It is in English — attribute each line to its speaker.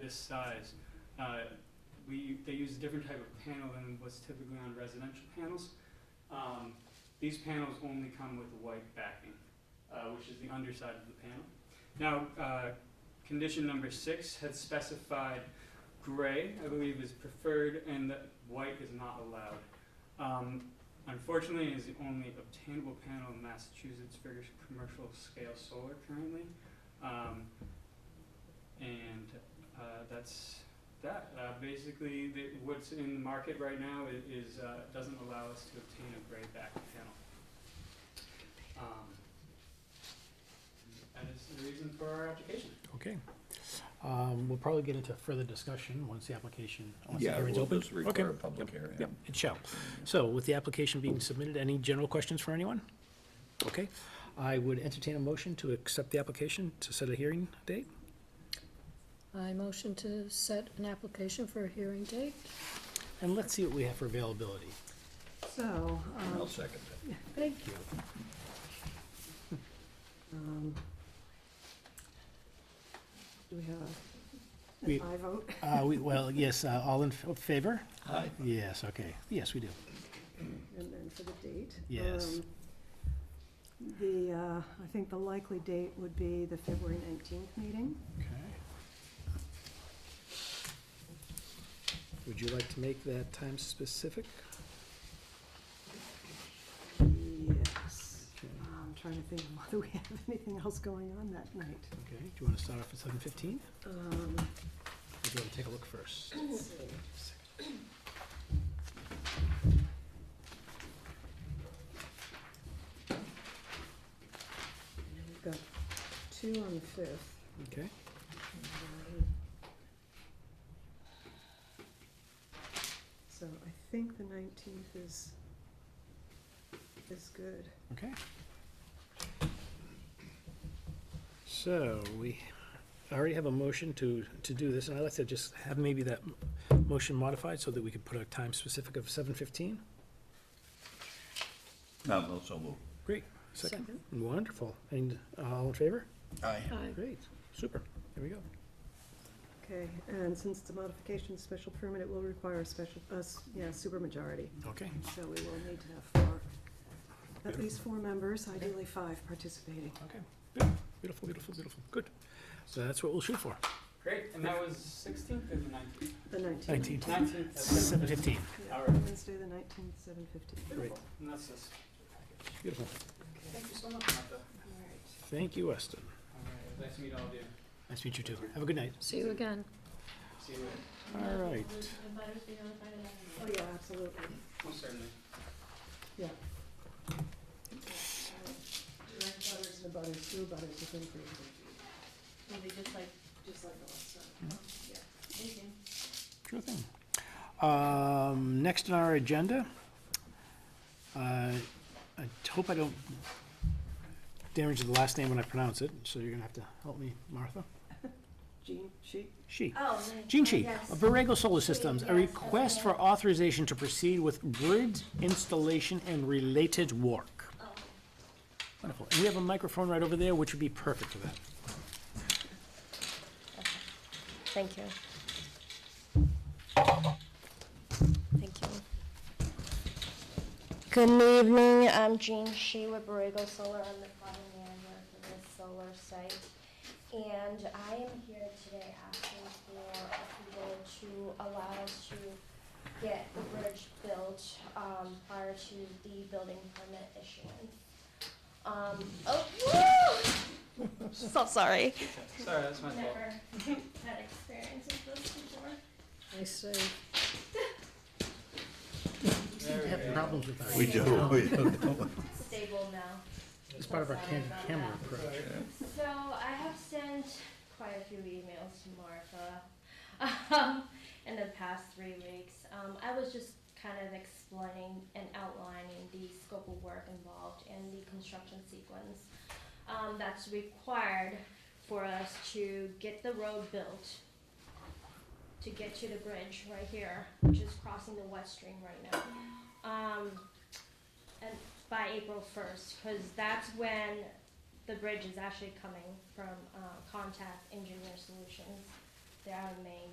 Speaker 1: this size, uh, we, they use a different type of panel than what's typically on residential panels. Um, These panels only come with white backing, uh, which is the underside of the panel. Now, uh, condition number six had specified gray, I believe, is preferred, and that white is not allowed. Um, Unfortunately, it is the only obtainable panel in Massachusetts for commercial scale solar currently. Um, And uh, that's that. Uh, Basically, the- what's in the market right now i- is, uh, doesn't allow us to obtain a gray back panel. Um, That is the reason for our application.
Speaker 2: Okay. Um, We'll probably get into further discussion once the application, once the
Speaker 3: Yeah,
Speaker 2: hearing's
Speaker 3: we'll
Speaker 2: open.
Speaker 3: just require
Speaker 2: Okay.
Speaker 3: a public
Speaker 2: Yep,
Speaker 3: hearing.
Speaker 2: Yep, it shall. So with the application being submitted, any general questions for anyone? Okay. I would entertain a motion to accept the application to set a hearing date.
Speaker 4: I motion to set an application for a hearing date.
Speaker 2: And let's see what we have for availability.
Speaker 4: So,
Speaker 3: And I'll
Speaker 4: um,
Speaker 3: second that.
Speaker 4: thank you. Um, Do we have
Speaker 2: We-
Speaker 4: a, an aye vote?
Speaker 2: Uh, we, well, yes, uh, all in f- favor?
Speaker 3: Aye.
Speaker 2: Yes, okay. Yes, we do.
Speaker 4: And then for the date?
Speaker 2: Yes.
Speaker 4: um, The, uh, I think the likely date would be the February nineteenth meeting.
Speaker 2: Okay. Would you like to make that time specific?
Speaker 4: Yes.
Speaker 2: Okay.
Speaker 4: I'm Um, trying to think of whether we have anything else going on that night.
Speaker 2: Okay, do you want to start off at seven fifteen?
Speaker 4: Um,
Speaker 2: Or do you want to take a look first?
Speaker 4: We've got two on the fifth.
Speaker 2: Okay.
Speaker 4: So I think the nineteenth is, is good.
Speaker 2: Okay. So we already have a motion to, to do this, and I'd like to just have maybe that m- motion modified so that we could put a time specific of seven fifteen.
Speaker 3: No, also move.
Speaker 2: Great. Second. Wonderful. And uh, all in favor?
Speaker 3: Aye.
Speaker 2: Great. Super. Here we go.
Speaker 4: Okay, and since it's a modification special permit, it will require a special, uh, yeah, supermajority.
Speaker 2: Okay.
Speaker 4: So we will need to have four, at least four members, ideally five participating.
Speaker 2: Okay. Good. Beautiful, beautiful, beautiful. Good. So that's what we'll shoot for.
Speaker 1: Great, and that was 16th and the 19th?
Speaker 4: The nineteenth.
Speaker 2: Nineteen.
Speaker 1: 19th.
Speaker 2: Seven fifteen.
Speaker 4: Yeah,
Speaker 1: All right.
Speaker 4: Wednesday, the nineteenth, seven fifty.
Speaker 1: Beautiful. And that's this.
Speaker 2: Beautiful.
Speaker 1: Thank you so much, Martha.
Speaker 2: Thank you, Weston.
Speaker 1: All right, nice to meet all of you.
Speaker 2: Nice to meet you too. Have a good night.
Speaker 5: See you again.
Speaker 1: See you later.
Speaker 2: All right.
Speaker 4: Oh, yeah, absolutely.
Speaker 1: Most certainly.
Speaker 4: Yeah. Direct butters and butters, through butters, you can create
Speaker 2: Mm-hmm. Sure thing. Um, next on our agenda, uh, I hope I don't damage the last name when I pronounce it, so you're gonna have to help me, Martha.
Speaker 4: Gene, she,
Speaker 2: She.
Speaker 6: Oh,
Speaker 2: Gene Shi,
Speaker 6: Yes.
Speaker 2: of Borrego Solar Systems, a
Speaker 6: Yes,
Speaker 2: request for authorization to proceed with grid installation and related work. Wonderful. And we have a microphone right over there, which would be perfect for that.
Speaker 5: Thank you. Thank you. Good evening, I'm Jean Shi with Borrego Solar. I'm the project manager for this solar site. And I am here today asking for approval to allow us to get the bridge built um, prior to the building permit issuance. Um, oh, woo! So sorry.
Speaker 1: Sorry, that's my fault.
Speaker 6: Never had experience with this before.
Speaker 4: I say,
Speaker 1: There we go.
Speaker 2: Problems with our,
Speaker 3: We do, we
Speaker 2: Oh,
Speaker 3: do.
Speaker 6: Stable now.
Speaker 2: it's part of our
Speaker 6: Sorry
Speaker 2: cam-
Speaker 6: about
Speaker 2: camera
Speaker 6: that.
Speaker 2: approach.
Speaker 6: So I have sent quite a few emails to Martha um, in the past three weeks. Um, I was just kind of explaining and outlining the scope of work involved and the construction sequence um, that's required for us to get the road built to get to the bridge right here, which is crossing the West Stream right now. Um, and by April 1st, because that's when the bridge is actually coming from uh, Contact Engineer Solutions They're out of Maine.